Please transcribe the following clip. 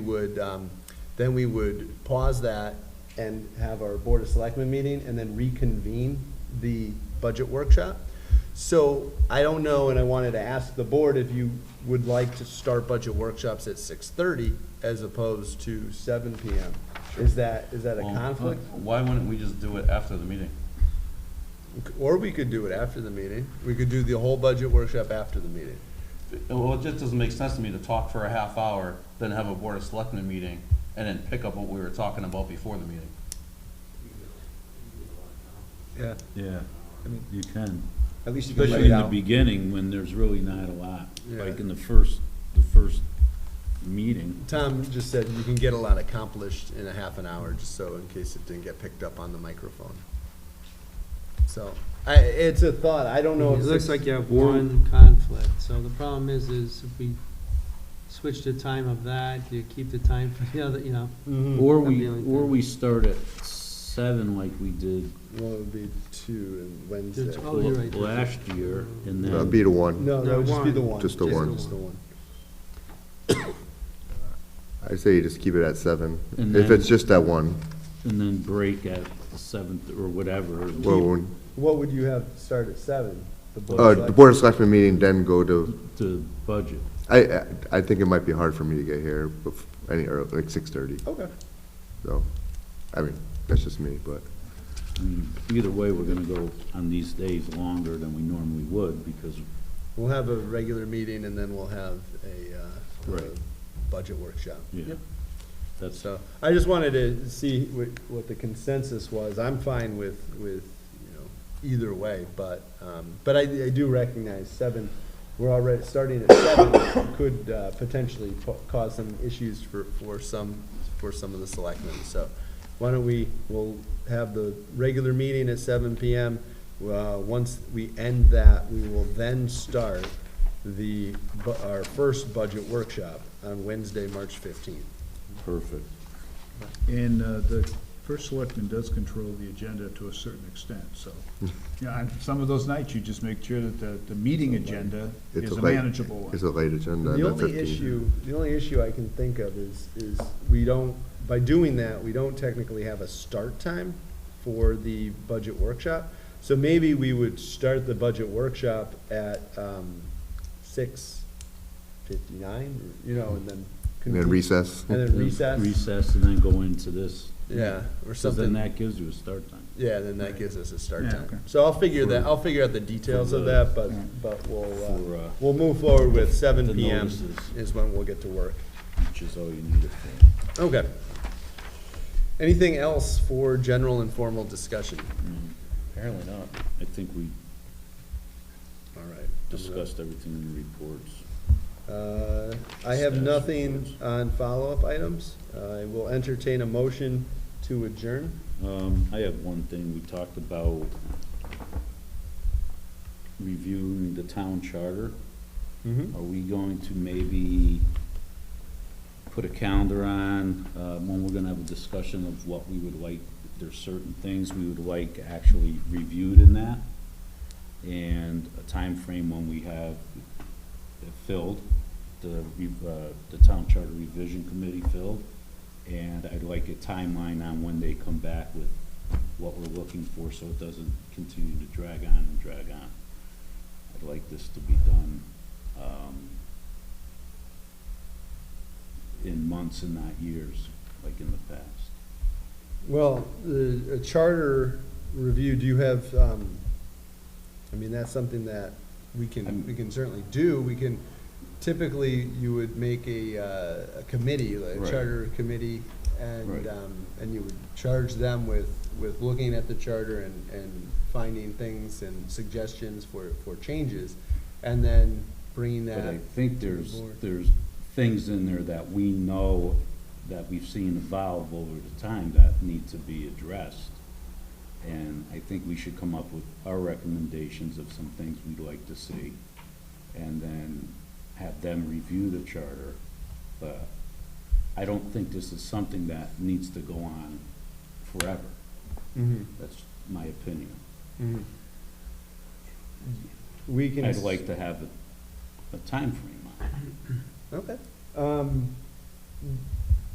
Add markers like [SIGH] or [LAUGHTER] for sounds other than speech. would, um, then we would pause that and have our Board of Selectmen meeting and then reconvene the budget workshop. So I don't know, and I wanted to ask the board if you would like to start budget workshops at six-thirty as opposed to seven PM. Is that, is that a Well, conflict? Why wouldn't we just do it after the meeting? Or we could do it after the meeting. We could do the whole budget workshop after the meeting. Well, it just doesn't make sense to me to talk for a half hour, then have a Board of Selectmen meeting, and then pick up what we were talking about before the meeting. Yeah. Yeah, you can, At least you can lay especially it in the out. beginning when there's really not a lot, Yeah. like in the first, the first meeting. Tom just said you can get a lot accomplished in a half an hour, just so in case it didn't get picked up on the microphone. So, I, it's a thought, I don't know. It if looks six- like you have one conflict, so the problem is, is if we switch the time of that, you keep the time for the other, you know. Mhm. Or Hmm. That'd be we, like or that. we start at seven like we did Well, it would be two and Wednesday. Oh, you're right. last year, and Uh, then, Be the one. No, that would just be the one. Just the one. Just the one. I say you just keep it at seven. And If then- it's just that one, and then break at seventh or whatever. well, when- What would you have start at seven? The Board uh, of the Select- Board of Selectmen meeting, then go to, To budget. I, I- I think it might be hard for me to get here bef- any, earl- like six-thirty, Okay, so, I mean, that's just me, but, I mean, either way, we're gonna go on these days longer than we normally would, because we'll have a regular meeting and then we'll have a, uh, the Right. budget workshop. Yeah, that's, So I just wanted to see what, what the consensus was. I'm fine with, with, you know, either way, but, um, but I, I do recognize seven, we're already, starting at seven could, uh, potentially po- cause some issues for, for some, for some of the selectmen. So why don't we, we'll have the regular meeting at seven PM. Uh, once we end that, we will then start the, bu- our first budget workshop on Wednesday, March fifteenth. perfect. And uh, the first selectman does control the agenda to a certain extent, [LAUGHS] so, yeah, on some of those nights, you just make sure that the, the meeting agenda It's is a a late- manageable one. it's a late agenda. The not only 15. issue, the only issue I can think of is, is we don't, by doing that, we don't technically have a start time for the budget workshop. So maybe we would start the budget workshop at, um, six fifty-nine, you know, and then. And convene- then recess. And then recess, Recess and then go into this. yeah, or So then something, that gives you a start time. yeah, then that gives us a start Yeah, okay. time. So I'll figure that, I'll figure out the details of the- that, but, but we'll, uh, we'll move forward with seven The PM notices. is when we'll get to work. Which is all you need it for. Okay. Anything else for general and formal discussion? Apparently not. I think we All right. discussed everything in the reports. Uh, I have nothing on follow-up items. I will entertain a motion to adjourn. Um, I have one thing, we talked about reviewing the town charter. Mhm. Are we going to maybe put a calendar on, uh, when we're gonna have a discussion of what we would like, if there's certain things we would like actually reviewed in that? And a time frame when we have it filled, the, re- uh, the town charter revision committee filled. And I'd like a timeline on when they come back with what we're looking for, so it doesn't continue to drag on and drag on. I'd like this to be done, um, in months and not years, like in the past. Well, the a charter review, do you have, um, I mean, that's something that we can, we can certainly do. We can, typically, you would make a, uh, a committee, a Right. charter committee, and, Right. um, and you would charge them with, with looking at the charter and, and finding things and suggestions for, for changes, and then bringing But I that. think there's, Board. there's things in there that we know, that we've seen evolve over the time that need to be addressed. And I think we should come up with our recommendations of some things we'd like to see, and then have them review the charter. But I don't think this is something that needs to go on forever. Mhm, That's my opinion. mhm. We can. I'd s- like to have a, a timeframe on it. Okay. Um,